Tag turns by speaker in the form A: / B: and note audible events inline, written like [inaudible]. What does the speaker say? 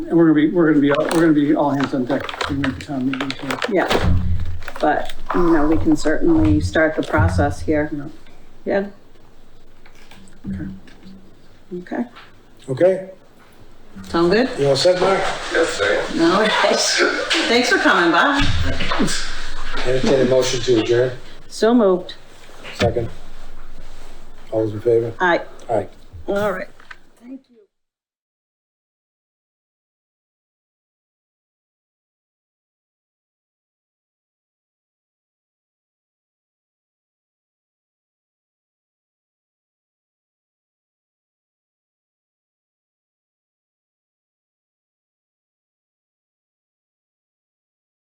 A: And we're gonna be, we're gonna be, all- we're gonna be all hands on deck in the town meeting, so,
B: Yeah, but, you know, we can certainly start the process here.
A: you know.
B: Yeah. Okay,
C: Okay,
B: sound good?
C: you all set, Mark?
B: No, [laughs] thanks. Thanks for coming, Bob.
C: Entertain a motion to adjourn.
B: So moved.
C: Second. All those in favor?
B: Aye.
C: Aye.
B: All right.